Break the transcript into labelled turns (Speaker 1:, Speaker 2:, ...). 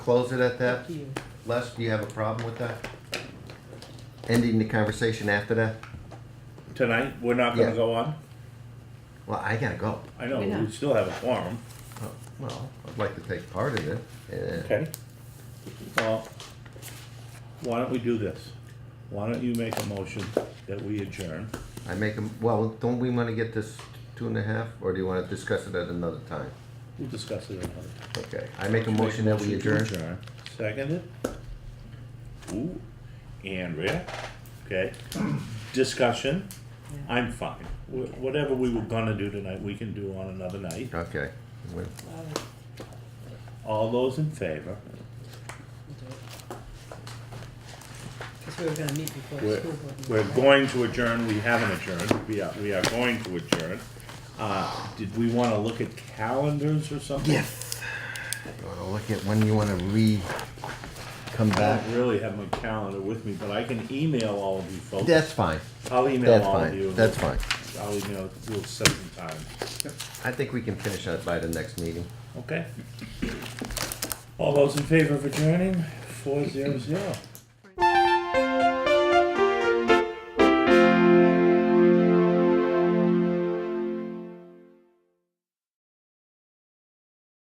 Speaker 1: close it at that?
Speaker 2: Up to you.
Speaker 1: Les, do you have a problem with that? Ending the conversation after that?
Speaker 3: Tonight, we're not gonna
Speaker 1: Yeah.
Speaker 3: go on?
Speaker 1: Well, I gotta go.
Speaker 3: I know,
Speaker 2: We're not.
Speaker 3: we still have a forum.
Speaker 1: Oh, Well, I'd like to take part in it. eh,
Speaker 3: Okay. Well, why don't we do this? Why don't you make a motion that we adjourn?
Speaker 1: I make them, well, don't we wanna get this two and a half, or do you wanna discuss it at another time?
Speaker 3: We'll discuss it another time.
Speaker 1: Okay, I make a motion that we adjourn.
Speaker 3: Seconded. Ooh, Andrea, okay. Discussion,
Speaker 2: Yeah.
Speaker 3: I'm fine. Wh- Whatever we were gonna do tonight, we can do on another night.
Speaker 1: Okay. Well,
Speaker 2: All right,
Speaker 3: All those in favor?
Speaker 2: we'll do it. Cause we were gonna meet before the
Speaker 3: We're,
Speaker 2: school board. meeting,
Speaker 3: we're
Speaker 2: right?
Speaker 3: going to adjourn, we haven't adjourned, we are, we are going to adjourn. Uh, did we wanna look at calendars or something?
Speaker 1: Yes. You wanna look at when you wanna re, come
Speaker 3: I
Speaker 1: back?
Speaker 3: don't really have my calendar with me, but I can email all of you folks.
Speaker 1: That's fine,
Speaker 3: I'll email
Speaker 1: that's
Speaker 3: all of you.
Speaker 1: fine, that's fine.
Speaker 3: I'll email, we'll set some time,
Speaker 1: I think we can finish that by the next meeting.
Speaker 3: okay? All those in favor of adjourning, four zero zero.